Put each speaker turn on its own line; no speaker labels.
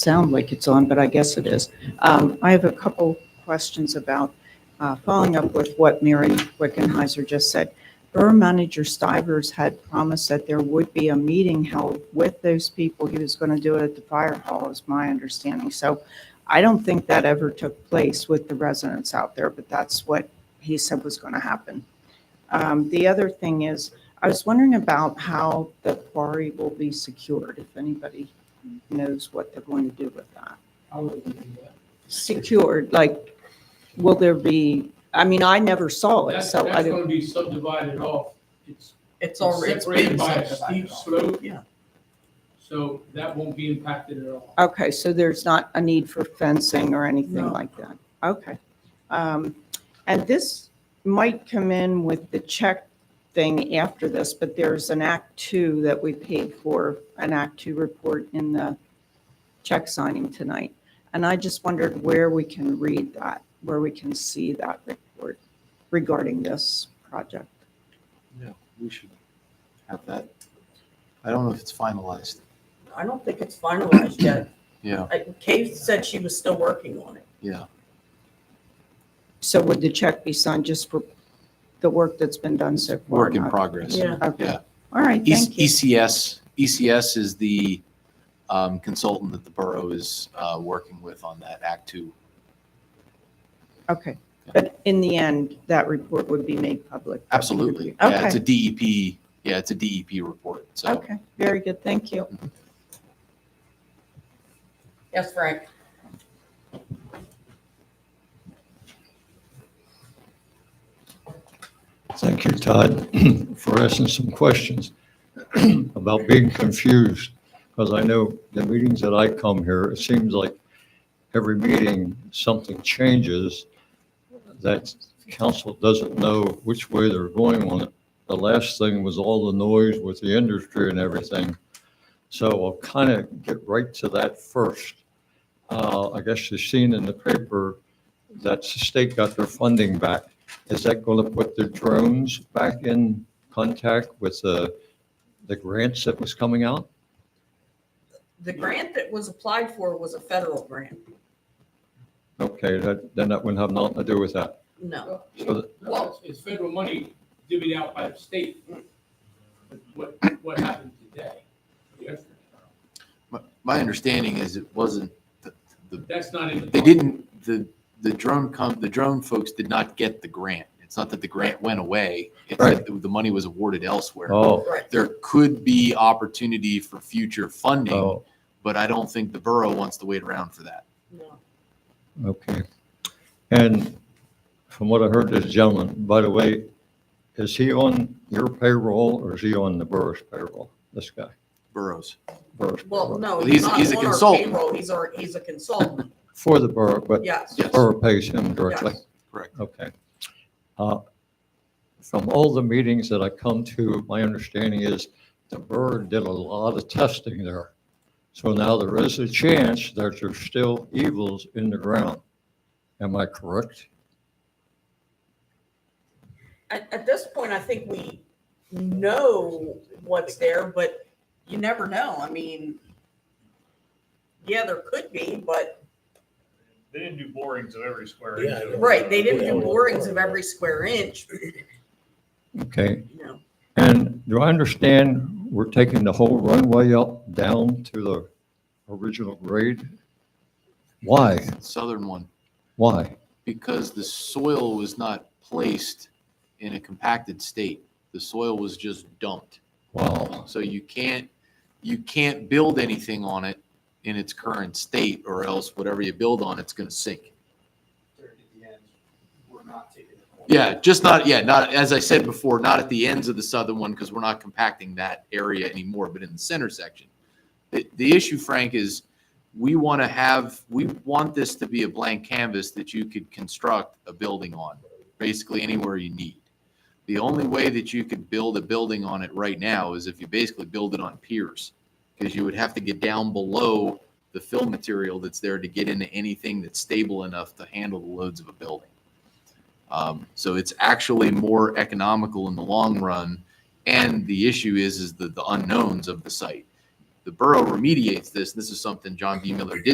sound like it's on, but I guess it is. Um, I have a couple questions about, uh, following up with what Mary Wickenheiser just said. Borough Manager Stivers had promised that there would be a meeting held with those people. He was going to do it at the fire hall, is my understanding. So I don't think that ever took place with the residents out there, but that's what he said was going to happen. Um, The other thing is, I was wondering about how the quarry will be secured, if anybody knows what they're going to do with that.
How would we do that?
Secured, like, will there be, I mean, I never saw it,
That's,
so I
that's
don't.
gonna be subdivided off. It's
It's already. it's
separated
been
by a
subdivided
steep
off.
slope.
Yeah.
So that won't be impacted at all.
Okay, so there's not a need for fencing or anything
No.
like that? Okay. Um, And this might come in with the check thing after this, but there's an Act Two that we paid for, an Act Two report in the check signing tonight. And I just wondered where we can read that, where we can see that report regarding this project.
Yeah, we should have that. I don't know if it's finalized.
I don't think it's finalized yet.
Yeah,
I- Kay said she was still working on it.
yeah.
So would the check be signed just for the work that's been done so far?
Work in
not-
progress.
Yeah.
Okay,
Yeah.
all right,
E-
thank you.
ECS, ECS is the um, consultant that the borough is uh, working with on that Act Two.
Okay,
Yeah.
but in the end, that report would be made public?
Absolutely. Yeah, it's a
Okay.
DEP, yeah, it's a DEP report, so.
Okay, very good, thank you.
Yes, Frank.
Thank you, Todd, for asking some questions about being confused. Because I know the meetings that I come here, it seems like every meeting, something changes that council doesn't know which way they're going on it. The last thing was all the noise with the industry and everything. So I'll kind of get right to that first. Uh, I guess you've seen in the paper that the state got their funding back. Is that going to put the drones back in contact with the, the grants that was coming out?
The grant that was applied for was a federal grant.
Okay, that, then that wouldn't have nothing to do with that.
No.
So that-
No, it's- It's federal money divvied out by the state. What, what happened today? yesterday,
My- My understanding is it wasn't, the- the-
That's not in the.
they didn't, the, the drone com, the drone folks did not get the grant. It's not that the grant went away, it's that the money was awarded elsewhere.
Oh,
Right.
there could be opportunity for future funding,
oh,
but I don't think the borough wants to wait around for that.
No.
okay. And from what I heard this gentleman, by the way, is he on your payroll or is he on the borough's payroll? This guy,
Boroughs.
borough's
Well,
payroll,
no.
Well, he's-
not
he's a
on our
consultant.
payroll. He's our, he's a consultant.
for the borough, but
Yes.
Yes.
borough pays him directly.
Yes.
Okay. Uh, From all the meetings that I come to, my understanding is the borough did a lot of testing there. So now there is a chance that there's still evils in the ground. Am I correct?
At, at this point, I think we know what's there, but you never know. I mean, yeah, there could be, but,
They didn't do borings of every square inch. of-
right, they didn't do borings of every square inch,
Okay,
you know.
and do I understand we're taking the whole runway up, down to the original grade? Why?
Southern one,
Why?
because the soil was not placed in a compacted state. The soil was just dumped.
Wow,
So you can't, you can't build anything on it in its current state or else whatever you build on, it's going to sink. Yeah, just not, yeah, not, as I said before, not at the ends of the southern one because we're not compacting that area anymore, but in the center section. The, the issue, Frank, is we want to have, we want this to be a blank canvas that you could construct a building on, basically anywhere you need. The only way that you could build a building on it right now is if you basically build it on piers. Because you would have to get down below the fill material that's there to get into anything that's stable enough to handle the loads of a building. Um, so it's actually more economical in the long run. And the issue is, is the, the unknowns of the site. The borough remediates this. and This is something John D. Miller did